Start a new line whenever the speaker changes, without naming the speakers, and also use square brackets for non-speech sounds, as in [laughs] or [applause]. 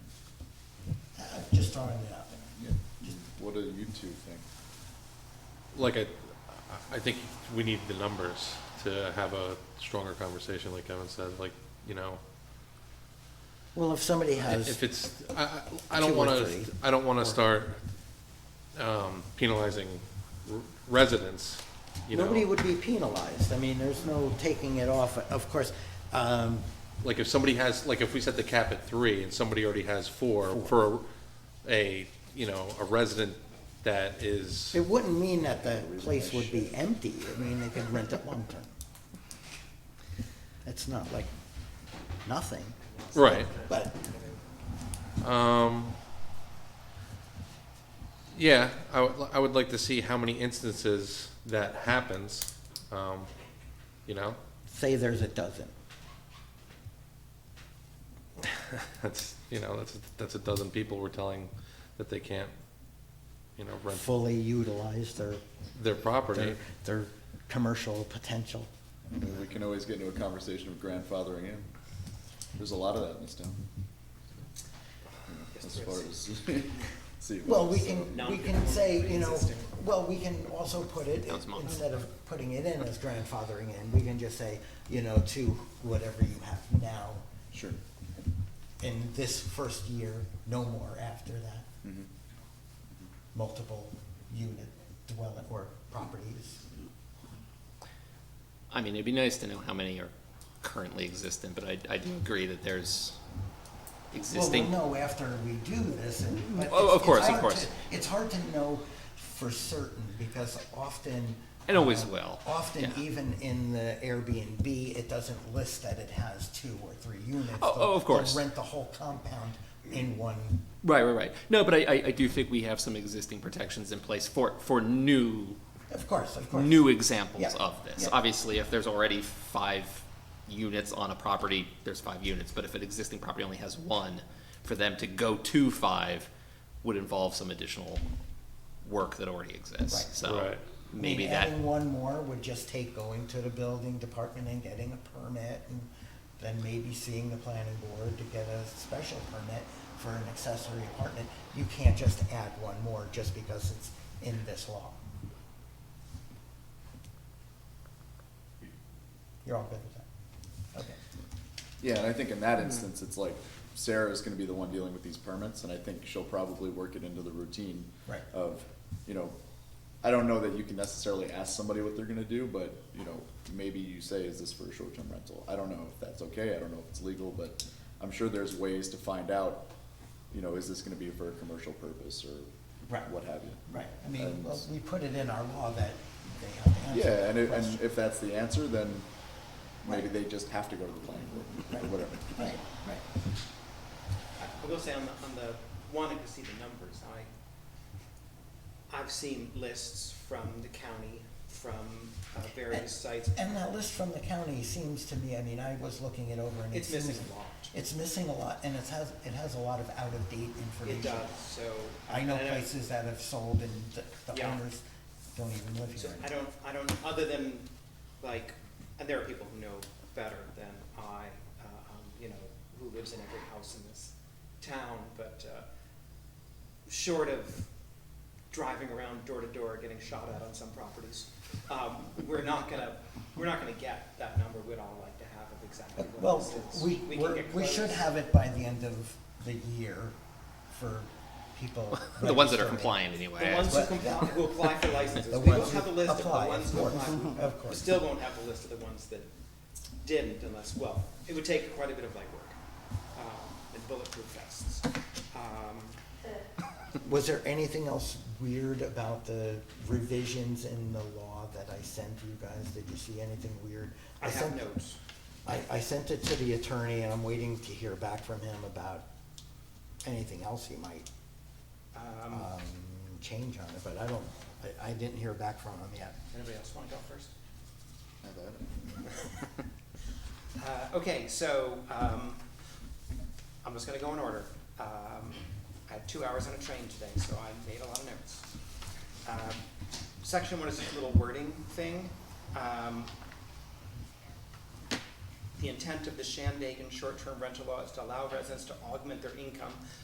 just throwing it out there.
What do you two think?
Like I, I think we need the numbers to have a stronger conversation, like Kevin said, like, you know,
Well, if somebody
if
has,
it's, I, I I
Two
don't
or
wanna,
three.
I don't wanna start um, penalizing r- residents, you
nobody
know?
would be penalized. I mean, there's no taking it off. Of course, um,
Like if somebody has, like if we set the cap at three and somebody already has four for a, a, you know, a resident that is,
it wouldn't mean that the place would be empty. I mean, they could rent it long term. It's not like nothing,
right.
but
Um, yeah, I would, I would like to see how many instances that happens, um, you know?
say there's a dozen.
[laughs] That's, you know, that's, that's a dozen people we're telling that they can't, you know, rent
fully utilize their,
their
their,
property.
their commercial potential.
I mean, we can always get into a conversation of grandfathering in. There's a lot of that in this town. As far as, [laughs] see. what
Well, we
else,
can,
uh,
we can say, you know, well, we can also put it, instead of putting it in as grandfathering in, we can just say, you know, to whatever you have now
Sure.
in this first year, no more after that,
Mhm.
multiple unit dwelling or properties.
I mean, it'd be nice to know how many are currently existent, but I, I do agree that there's
Well, we'll
existing.
know after we do this, and. but
Oh,
it's-
of
it's
course, of
hard to-
course.
It's hard to know for certain, because often.
It always
uh,
will,
Often,
yeah.
even in the Airbnb, it doesn't list that it has two or three units.
Oh,
They'll-
oh, of course.
They'll rent the whole compound in one,
Right, right, right. No, but I, I, I do think we have some existing protections in place for, for new,
of course, of course.
new examples
Yeah,
of this.
yeah.
Obviously, if there's already five units on a property, there's five units, but if an existing property only has one, for them to go to five would involve some additional work that already exists,
Right.
so
Right.
I mean,
maybe that.
Adding one more would just take going to the building department and getting a permit, and then maybe seeing the planning board to get a special permit for an accessory apartment. You can't just add one more just because it's in this law. You're all good with that? Okay.
Yeah, and I think in that instance, it's like Sarah is gonna be the one dealing with these permits, and I think she'll probably work it into the routine.
Right.
Of, you know, I don't know that you can necessarily ask somebody what they're gonna do, but, you know, maybe you say, is this for a short-term rental? I don't know if that's okay, I don't know if it's legal, but I'm sure there's ways to find out, you know, is this gonna be for a commercial purpose or
Right.
what have you.
Right, I mean,
And-
well, we put it in our law that they have to answer
Uh, Yeah,
that
and it,
question.
and if that's the answer, then maybe
Right.
they just have to go to the planning board, or whatever.
Right, right.
I will say on the, on the wanting to see the numbers, I, I've seen lists from the county, from uh, various sites.
And that list from the county seems to me, I mean, I was looking it over and it
It's missing
seems-
a lot.
It's missing a lot, and it has, it has a lot of out-of-date information.
It does, so.
I know
and
places that have sold and the- the
Yeah.
owners don't even live
So
here. Uh,
I don't, I don't, other than, like, and there are people who know better than I, uh, um, you know, who lives in every house in this town, but, uh, short of driving around door to door, getting shot at on some properties, um, we're not gonna, we're not gonna get that number we'd all like to have of exactly what
Well,
this is.
we,
can
we're-
get
we should
close.
have it by the end of the year for people.
[laughs] The ones that are
registering.
compliant anyway.
The ones who
But-
comply, who apply for
[laughs]
licenses,
The
we will
ones who
have a list of the
apply,
ones
of
who
course,
apply.
of
We
course.
still won't have a list of the ones that didn't unless, well, it would take quite a bit of legwork, um, and bulletproof vests. Um,
Was there anything else weird about the revisions in the law that I sent you guys? Did you see anything weird?
I have
sent-
notes.
I, I sent it to the attorney, and I'm waiting to hear back from him about anything else he might,
Um,
um, change on it, but I don't, I, I didn't hear back from him yet.
anybody else wanna go first?
Not bad.
Uh, okay, so, um, I'm just gonna go in order. Um, I had two hours on a train today, so I made a lot of notes. Um, Section one is just a little wording thing. Um, The intent of the Shandaken short-term rental law is to allow residents to augment their income